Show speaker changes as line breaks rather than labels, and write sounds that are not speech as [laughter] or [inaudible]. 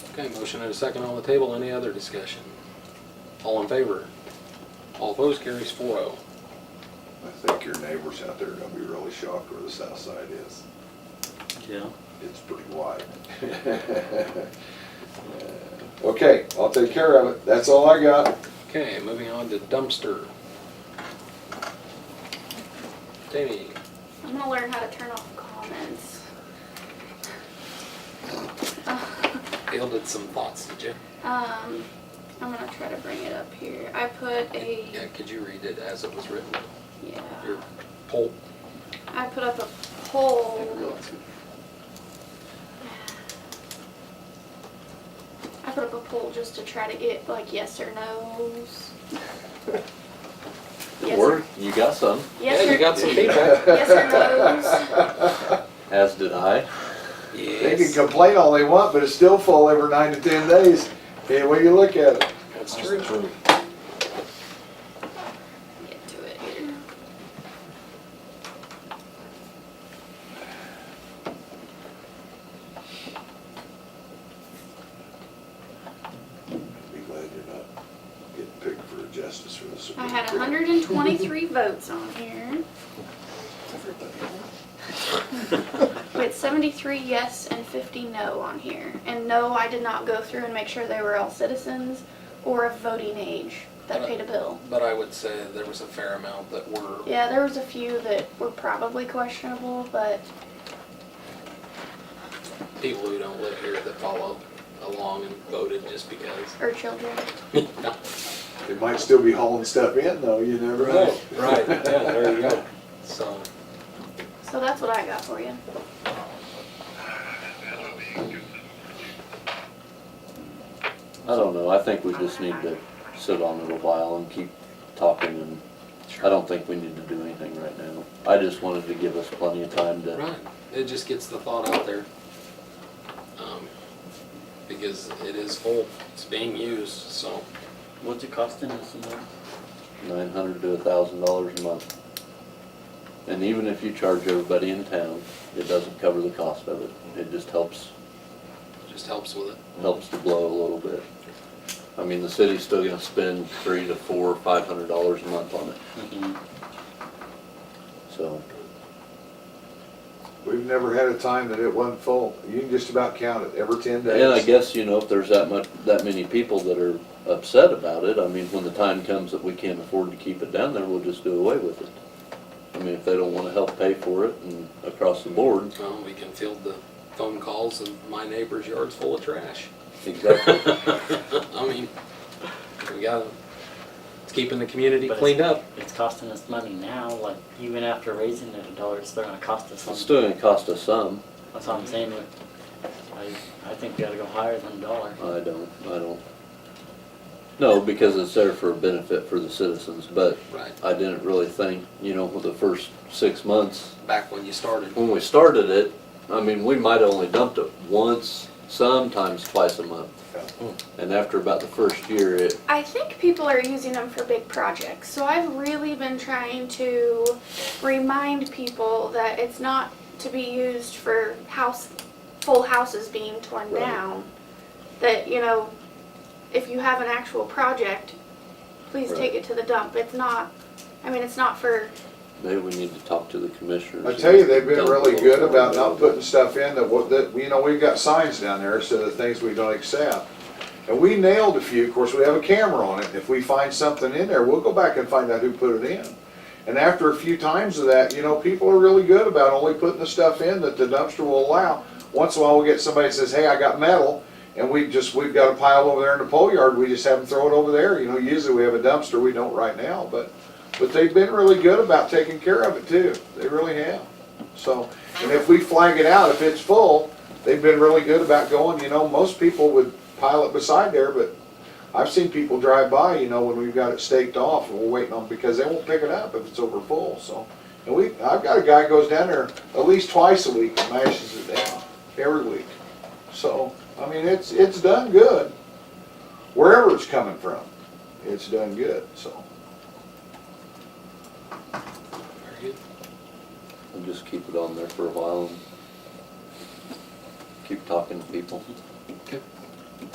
Okay, motion and a second on the table. Any other discussion? All in favor? All opposed carries oh. 4-0.
I think your neighbors out there are gonna be really shocked where the south side is.
Yeah.
It's pretty wide. [laughs] Okay, I'll take care of it. That's all I got.
Okay, moving on to dumpster. Jamie,
I'm gonna learn how to turn off comments. Uh,
yielded some thoughts, did you?
Um, I'm gonna try to bring it up here. I put
Yeah,
a,
could you read it as it was written?
yeah,
Your poll?
I put up a poll. I put up a poll just to try to get like yes or no's. Yes or,
Or you got some,
yes
Yeah, you
or,
got some
[laughs]
feedback.
[laughs] yes or no's.
as did I.
They can
Yes,
complain all they want, but it's still full every nine to ten days. Any way you look at it.
that's true.
Get to it here.
Be glad you're not getting picked for justice for this.
I had hundred and twenty-three votes on here, with seventy-three yes and fifty no on here. And no, I did not go through and make sure they were all citizens or of voting age that paid a bill.
But I would say there was a fair amount that were,
Yeah, there was a few that were probably questionable, but
people who don't live here that followed along and voted just because.
or children.
They might still be hauling stuff in though, you never know.
right, yeah, there you go. So,
So that's what I got for you.
I don't know, I think we just need to sit on it a while and keep talking and I don't think we need to do anything right now. I just wanted to give us plenty of time to,
right, it just gets the thought out there. Um, Because it is full, it's being used, so.
What's it costing us a month?
nine hundred to a thousand dollars a month. And even if you charge everybody in town, it doesn't cover the cost of it. It just helps,
Just helps with it.
helps to blow a little bit. I mean, the city's still gonna spend three to four, or five hundred dollars a month on it, so.
We've never had a time that it wasn't full. You can just about count it every ten days.
And I guess, you know, if there's that much, that many people that are upset about it, I mean, when the time comes that we can't afford to keep it down there, we'll just do away with it. I mean, if they don't wanna help pay for it and across the board,
Well, we can field the phone calls of my neighbor's yard's full of trash. [laughs]
exactly.
I mean, we gotta, it's keeping the community
But it's-
cleaned up.
It's costing us money now, like even after raising it a dollar, it's still gonna cost us
It's
something.
still gonna cost us some.
That's what I'm saying, but I, I think we gotta go higher than a dollar.
I don't, I don't. No, because it's there for a benefit for the citizens, but
Right,
I didn't really think, you know, with the first six months,
back when you started.
when we started it, I mean, we might have only dumped it once, sometimes twice a month. And after about the first year, it,
I think people are using them for big projects, so I've really been trying to remind people that it's not to be used for house, full houses being torn
Right.
down. That, you know, if you have an actual project, please take
Right.
it to the dump. It's not, I mean, it's not for,
maybe we need to talk to the commissioners.
I tell you, they've been really good about not putting stuff in that, what, that, you know, we've got signs down there, so the things we don't accept. And we nailed a few, of course, we have a camera on it, if we find something in there, we'll go back and find out who put it in. And after a few times of that, you know, people are really good about only putting the stuff in that the dumpster will allow. Once in a while, we get somebody that says, hey, I got metal, and we just, we've got a pile over there in the pole yard, we just have them throw it over there, you know, usually we have a dumpster, we don't right now, but, but they've been really good about taking care of it too, they really have. So, and if we flag it out, if it's full, they've been really good about going, you know, most people would pile it beside there, but I've seen people drive by, you know, when we've got it staked off and we're waiting on, because they won't pick it up if it's over full, so. And we, I've got a guy goes down there at least twice a week and mashes it down, every week. So, I mean, it's, it's done good. Wherever it's coming from, it's done good, so.
Very good.
And just keep it on there for a while and keep talking to people.